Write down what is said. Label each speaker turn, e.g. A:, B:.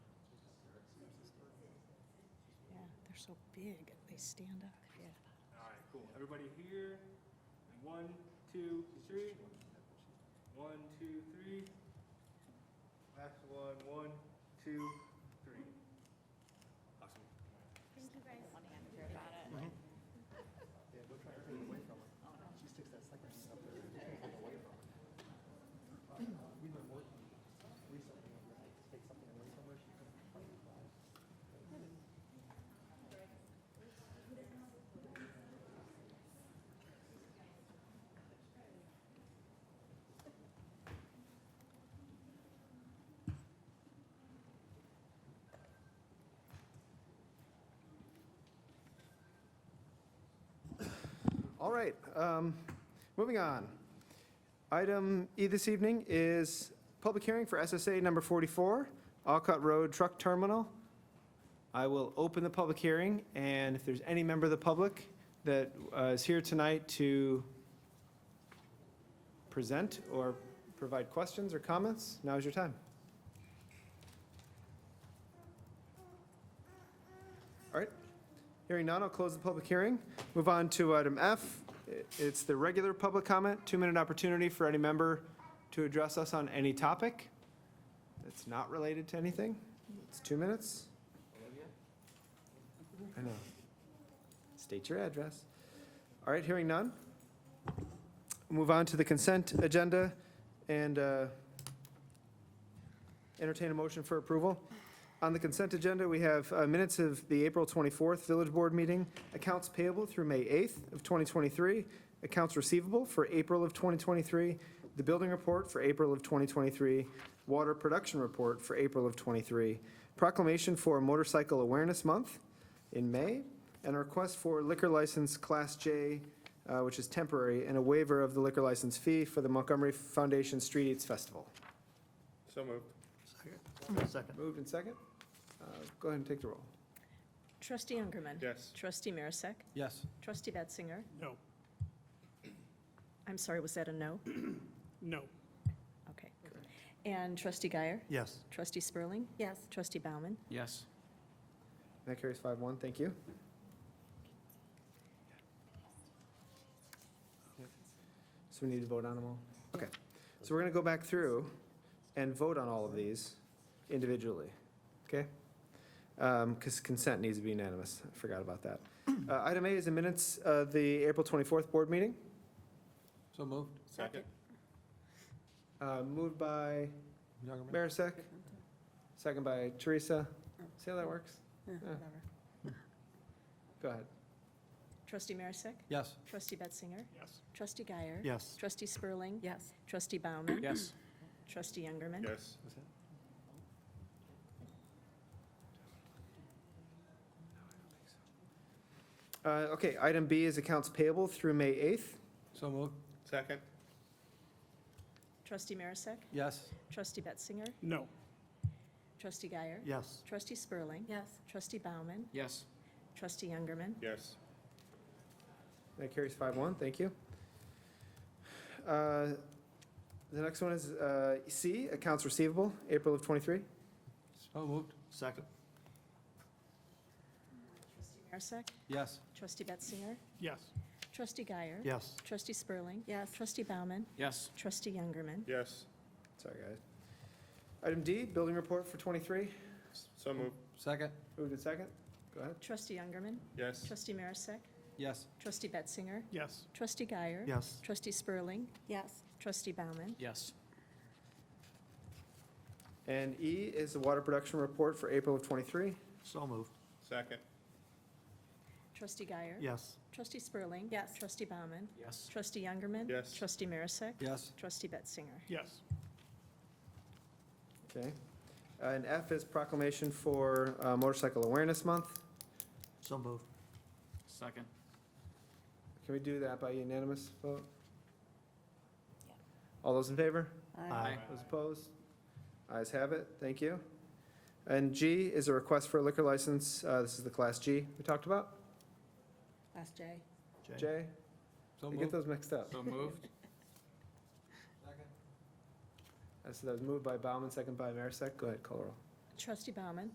A: so big, and they stand up, yeah.
B: All right, cool. Everybody here? One, two, three. One, two, three. Last one, one, two, three. Awesome.
C: Thank you guys. Mm-hmm.
D: Yeah, go try to get away from her. She sticks that sucker thing up there. You can't get away from her. We've been working recently on that, to take something away from her, she couldn't.
E: All right, um, moving on. Item E this evening is public hearing for SSA number 44, Alcott Road Truck Terminal. I will open the public hearing, and if there's any member of the public that uh, is here tonight to present or provide questions or comments, now is your time. All right, hearing none, I'll close the public hearing. Move on to item F. I- It's the regular public comment, two-minute opportunity for any member to address us on any topic that's not related to anything. It's two minutes. I know. State your address. All right, hearing none. Move on to the consent agenda and uh, entertain a motion for approval. On the consent agenda, we have uh, minutes of the April 24th Village Board meeting, accounts payable through May 8th of 2023, accounts receivable for April of 2023, the building report for April of 2023, water production report for April of 23, proclamation for Motorcycle Awareness Month in May, and a request for liquor license Class J, uh, which is temporary, and a waiver of the liquor license fee for the Montgomery Foundation Street Eats Festival.
B: So moved.
D: Second.
E: Moved and second. Uh, Go ahead and take the roll.
A: Trustee Youngerman.
B: Yes.
A: Trustee Marisak.
D: Yes.
A: Trustee Betzinger.
F: No,
A: I'm sorry, was that a no?
F: no,
A: Okay. And Trustee Guyer.
D: Yes.
A: Trustee Spurling.
C: Yes.
A: Trustee Bauman.
D: Yes.
E: That carries five one, thank you. So we need to vote on them all? Okay, so we're gonna go back through and vote on all of these individually, okay? Um, cause consent needs to be unanimous, I forgot about that. Uh, item A is the minutes, uh, the April twenty-fourth board meeting,
D: So moved.
B: Second.
E: uh, moved by Marisak, second by Teresa. See how that works? Go ahead.
A: Trustee Marisak.
D: Yes.
A: Trustee Betzinger.
F: yes,
A: Trustee Guyer.
D: Yes.
A: Trustee Spurling.
C: Yes.
A: Trustee Bauman.
D: Yes.
A: Trustee Youngerman.
B: Yes.
E: Uh, okay, item B is accounts payable through May eighth.
D: So moved.
B: Second.
A: Trustee Marisak.
D: Yes.
A: Trustee Betzinger.
F: no,
A: Trustee Guyer.
D: Yes.
A: Trustee Spurling.
C: Yes.
A: Trustee Bauman.
D: Yes.
A: Trustee Youngerman.
B: Yes.
E: That carries five one, thank you. Uh, The next one is uh, C, accounts receivable, April of twenty-three.
D: So moved. Second.
A: Trustee Marisak.
D: Yes.
A: Trustee Betzinger.
F: yes,
A: Trustee Guyer.
D: Yes.
A: Trustee Spurling.
C: Yes.
A: Trustee Bauman.
D: Yes.
A: Trustee Youngerman.
B: Yes.
E: Sorry, guys. Item D, building report for twenty-three.
B: So moved.
D: Second.
E: Moved in second. Go ahead.
A: Trustee Youngerman.
B: Yes.
A: Trustee Marisak.
D: Yes.
A: Trustee Betzinger.
F: yes,
A: Trustee Guyer.
D: Yes.
A: Trustee Spurling.
C: Yes.
A: Trustee Bauman.
D: Yes.
E: And E is the water production report for April of twenty-three.
D: So moved.
B: Second.
A: Trustee Guyer.
D: Yes.
A: Trustee Spurling.
C: Yes.
A: Trustee Bauman.
D: Yes.
A: Trustee Youngerman.
B: Yes.
A: Trustee Marisak.
D: Yes.
A: Trustee Betzinger.
F: yes,
E: Okay. Uh, And F is proclamation for uh, motorcycle awareness month.
D: So moved.
G: Second.
E: Can we do that by unanimous vote? All those in favor?
D: Aye.
E: Those opposed? Ayes have it, thank you. And G is a request for a liquor license, uh, this is the Class G we talked about.
C: Last J.
E: J,
D: So
E: you get those mixed up.
G: So moved?
E: Uh, So that was moved by Bauman, second by Marisak, go ahead, call the roll.
A: Trustee Bauman.